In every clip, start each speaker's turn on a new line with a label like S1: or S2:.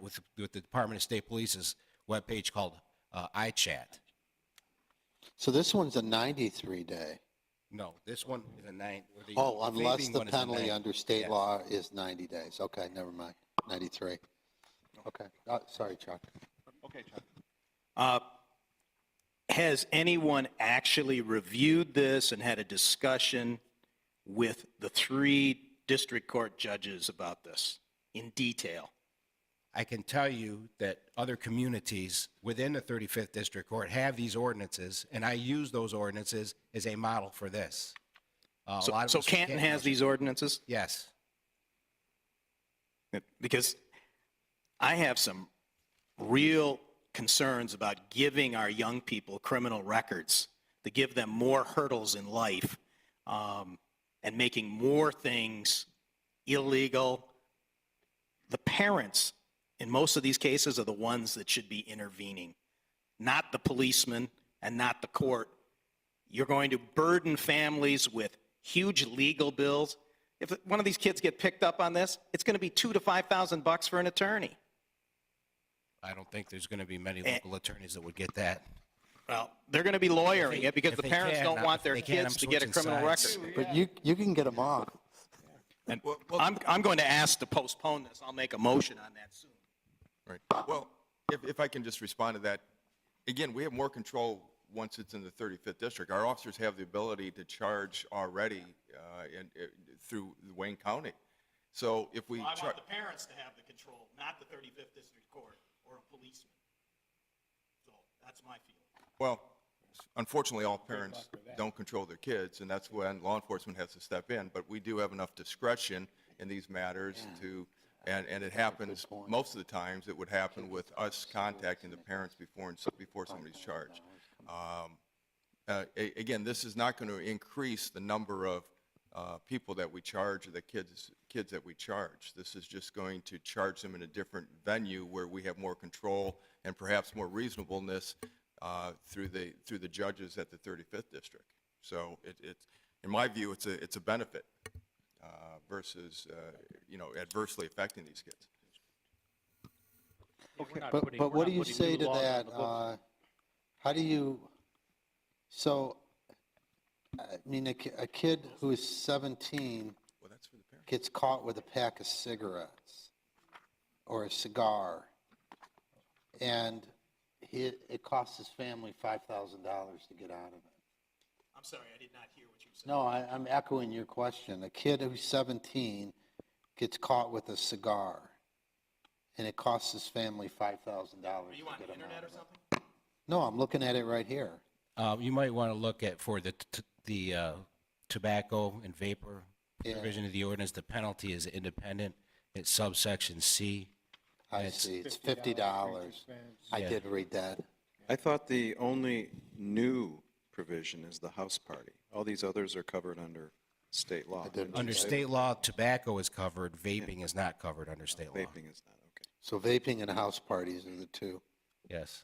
S1: with, with the Department of State Police's webpage called uh, iChat.
S2: So this one's a 93 day.
S1: No, this one is a nine. or the
S2: Oh, unless
S1: vaping
S2: the
S1: one is a
S2: penalty
S1: nine.
S2: under state
S1: Yes.
S2: law is 90 days. Okay, never mind. 93. Okay, Uh, sorry, Chuck.
S3: Uh, Has anyone actually reviewed this and had a discussion with the three district court judges about this in detail?
S1: I can tell you that other communities within the 35th District Court have these ordinances, and I use those ordinances as a model for this. Uh, a
S3: So
S1: lot of
S3: so
S1: us from
S3: Canton has these ordinances?
S1: Yes.
S3: Because I have some real concerns about giving our young people criminal records to give them more hurdles in life um, and making more things illegal. The parents, in most of these cases, are the ones that should be intervening, not the policeman and not the court. You're going to burden families with huge legal bills. If one of these kids get picked up on this, it's going to be two to five thousand bucks for an attorney.
S1: I don't think there's going to be many local attorneys that would get that.
S3: Well, they're going to be lawyering it because
S1: if
S3: the
S1: they
S3: parents
S1: can,
S3: don't
S1: not-
S3: want
S1: if
S3: their
S1: they can,
S3: kids
S1: I'm
S3: to get a
S1: switching
S3: criminal
S1: sides.
S3: record.
S2: But you, you can get them off.
S3: And I'm, I'm going to ask to postpone this. I'll make a motion on that soon.
S4: Right. Well, if, if I can just respond to that, again, we have more control once it's in the 35th district. Our officers have the ability to charge already uh, in, uh, through Wayne County. So if we, char-
S3: parents to have the control, not the 35th District Court or a policeman. So that's my feeling.
S4: well, unfortunately, all parents don't control their kids, and that's when law enforcement has to step in. But we do have enough discretion in these matters to, and, and it happens, most of the times, it would happen with us contacting the parents before, and so- before somebody's charged. uh, a- again, this is not going to increase the number of uh, people that we charge or the kids, kids that we charge. This is just going to charge them in a different venue where we have more control and perhaps more reasonableness uh, through the, through the judges at the 35th district. So it, it, in my view, it's a, it's a benefit uh, versus, uh, you know, adversely affecting these kids.
S2: But, but what do you say to that? uh, How do you, so, I mean, a ki- a kid who is 17
S4: Well, that's for the parents.
S2: gets caught with a pack of cigarettes or a cigar, and he, it costs his family $5,000 to get out of it.
S3: I'm sorry, I did not hear what you said.
S2: No, I, I'm echoing your question. A kid who's 17 gets caught with a cigar, and it costs his family $5,000 to get him out of it.
S3: You on the internet or something?
S2: No, I'm looking at it right here.
S1: Uh, You might want to look at for the, t- the uh, tobacco and vapor
S2: Yeah.
S1: provision of the ordinance, the penalty is independent. It's subsection C.
S2: I
S1: It's
S2: see, it's $50. I
S1: Yeah.
S2: did read that.
S5: I thought the only new provision is the house party. All these others are covered under state law.
S2: didn't-
S1: Under state law, tobacco is covered, vaping is not covered under state law.
S5: Vaping is not, okay.
S2: So vaping and house parties are the two.
S1: Yes.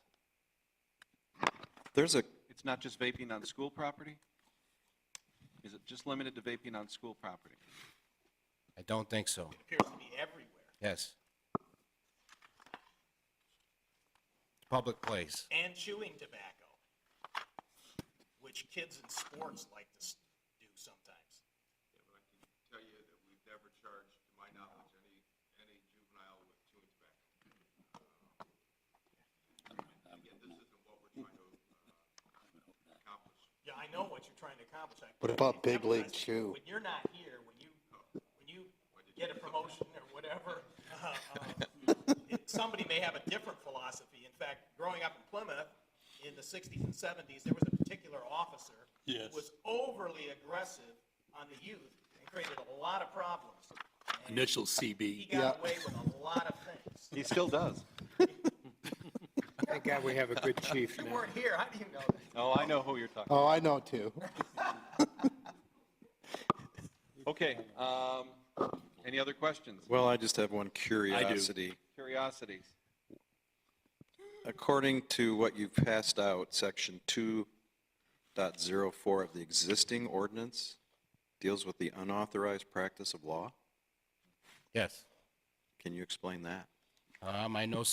S5: There's a,
S6: It's not just vaping on school property? Is it just limited to vaping on school property?
S1: I don't think so.
S3: It appears to be everywhere
S1: Yes. Public place.
S3: and chewing tobacco, which kids in sports like to s- do sometimes.
S4: tell you that we've never charged, to my knowledge, any, any juvenile with chewing tobacco. Uh,
S3: Yeah, I know what you're trying to accomplish. I-
S2: What about Big League
S3: Nevertheless,
S2: Chew?
S3: When you're not here, when you, when you get a promotion or whatever, uh, uh, it- somebody may have a different philosophy. In fact, growing up in Plymouth, in the 60s and 70s, there was a particular officer who was overly aggressive on the youth and created a lot of problems. And
S7: Initial CB.
S3: He got away with a lot of things.
S6: He still does.
S8: Thank God we have a good chief
S3: You
S8: now.
S3: weren't here, how do you know that?
S6: Oh, I know who you're talking
S2: Oh, I know two.
S6: Okay, um, any other questions?
S5: well, I just have one curiosity.
S6: Curiosities?
S5: According to what you've passed out, section 2.04 of the existing ordinance deals with the unauthorized practice of law.
S1: Yes.
S5: Can you explain that?
S1: Um, I know